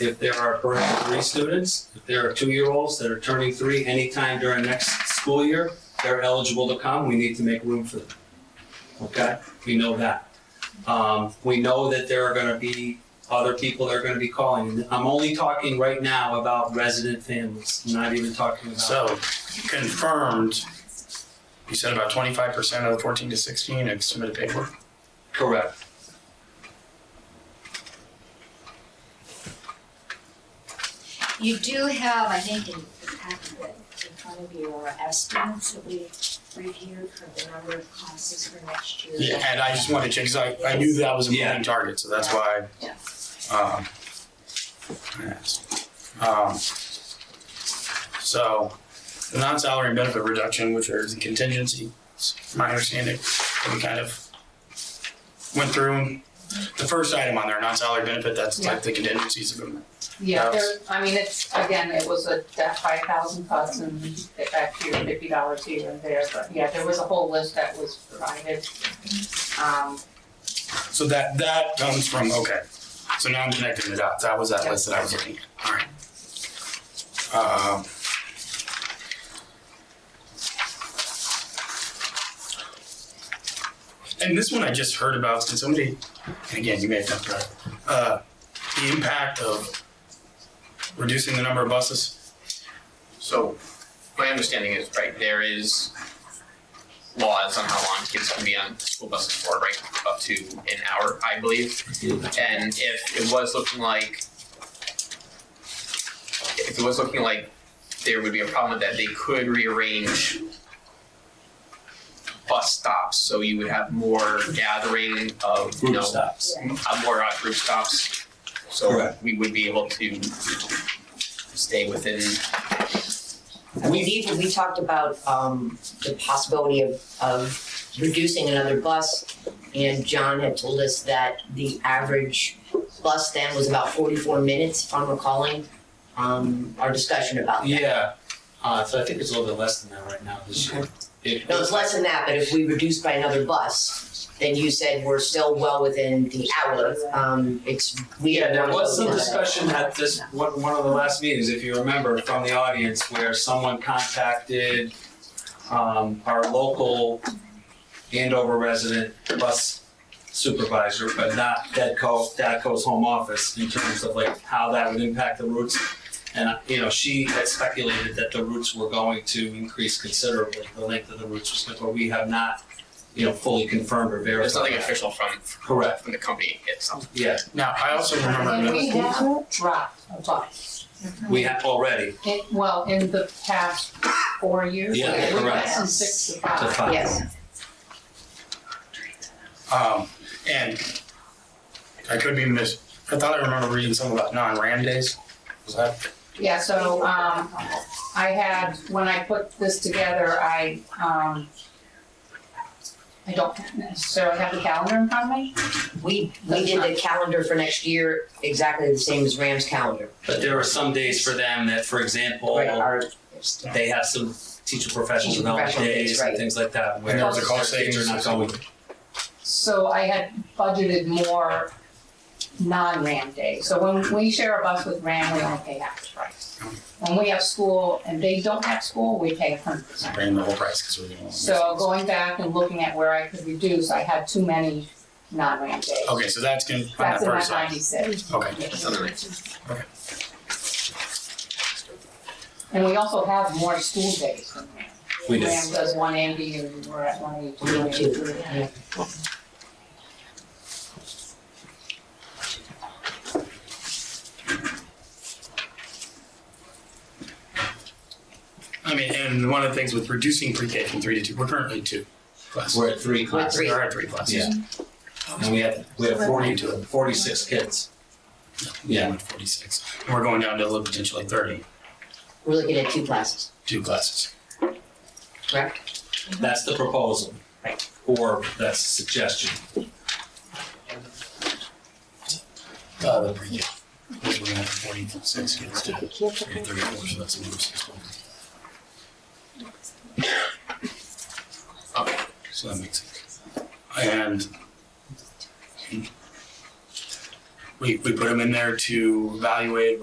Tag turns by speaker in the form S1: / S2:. S1: if there are currently three students, if there are two-year-olds that are turning three anytime during next school year, they're eligible to come, we need to make room for them. Okay, we know that. Um, we know that there are gonna be other people that are gonna be calling. And I'm only talking right now about resident families, not even talking about.
S2: So confirmed, you said about twenty-five percent of the fourteen to sixteen have submitted paperwork.
S1: Correct.
S3: You do have, I think, in the packet that in front of you are estimates that we reviewed for the number of classes for next year.
S2: Yeah, and I just wanted to check, cause I, I knew that was a
S1: Yeah.
S2: moving target, so that's why.
S3: Yeah.
S2: Um. yes. Um, So, the non-salary and benefit reduction, which are the contingency, it's my understanding, that we kind of went through. The first item on there, non-salary benefit, that's like the contingencies of them.
S4: Yeah,
S2: That
S4: there, I mean, it's, again, it was a, that five thousand cuts and get back to your fifty dollars here and there, but yeah, there was a whole list that was provided. Um,
S2: So that, that comes from, okay, so now I'm connecting the dots, that was that list that I was looking at, alright. Um. And this one I just heard about, can somebody, and again, you may have talked about, it, uh, the impact of reducing the number of buses?
S5: So, my understanding is, right, there is laws on how long kids can be on school buses for, right, up to an hour, I believe. And if it was looking like, if it was looking like there would be a problem with that, they could rearrange bus stops, so you would have more gathering of, you
S1: Group
S5: know,
S1: stops.
S5: uh, more uh, group stops. So
S1: Correct.
S5: we would be able to stay within
S6: We've even, we talked about um the possibility of of reducing another bus. And John had told us that the average bus then was about forty-four minutes, if I'm recalling, um our discussion about that.
S1: Yeah, uh, so I think it's a little bit less than that right now this year. It-
S6: No, it's less than that, but if we reduced by another bus, then you said we're still well within the hour. Um it's, we
S1: Yeah,
S6: had
S1: there
S6: one
S1: was some
S6: vote on that.
S1: discussion at this, one, one of the last meetings, if you remember, from the audience, where someone contacted um, our local Andover resident bus supervisor, but not Dadco, Dadco's home office, in terms of like how that would impact the routes. And, uh, you know, she had speculated that the routes were going to increase considerably, the length of the routes was, but we have not, you know, fully confirmed or verified.
S5: There's nothing
S1: that.
S5: official from,
S1: Correct,
S5: from the company itself.
S1: yeah,
S2: Now, I also remember.
S4: and we
S2: another-
S4: have dropped a bus.
S1: we have already,
S4: In- well, in the past four years, we
S1: Yeah,
S4: went
S1: correct.
S4: from six to
S1: to
S4: five.
S1: five.
S3: Yes.
S2: Um, and I could be mis, I thought I remember reading something about non-ram days. Was that?
S4: Yeah, so, um, I had, when I put this together, I, um, I don't necessarily have the calendar in front of me.
S6: We we did the calendar for next year exactly the same as Ram's calendar.
S1: But there are some days for them that, for example,
S6: Right, our
S1: they have some teacher professional
S6: Teacher
S1: development
S6: professional days,
S1: days and
S6: right.
S1: things like that where
S2: And there was a cost
S1: their kids are not
S2: savings.
S1: going.
S4: So I had budgeted more non-RAM days. So when we share a bus with RAM, we only pay half the price. When we have school and they don't have school, we pay hundred percent.
S2: Ran the whole price because we're the only.
S4: So going back and looking at where I could reduce, I had too many non-RAM days.
S2: Okay, so that's gonna, on that
S4: That's in my
S2: first side.
S4: ninety-six.
S2: Okay.
S4: And we also have more school days than RAM.
S1: We do.
S4: RAM does one eighty and we're at one
S6: One
S4: eighty-two.
S6: eighty-two, yeah.
S2: I mean, and one of the things with reducing pre-K from three to two, we're currently two classes.
S1: We're at three
S6: We're at
S1: classes
S6: three.
S2: There are three classes.
S1: Yeah. and we have, we have forty to forty-six kids. Yeah.
S2: Yeah, forty-six. And we're going down to potentially thirty,
S6: We're looking at two classes,
S2: two classes.
S6: correct?
S1: That's the proposal.
S6: Mm-hmm. Right.
S1: Or that's a suggestion.
S2: Uh, the pre-K. We're going up from forty-six kids to thirty-four, so that's another six.
S5: Okay.
S2: So that makes sense. And we, we put them in there to evaluate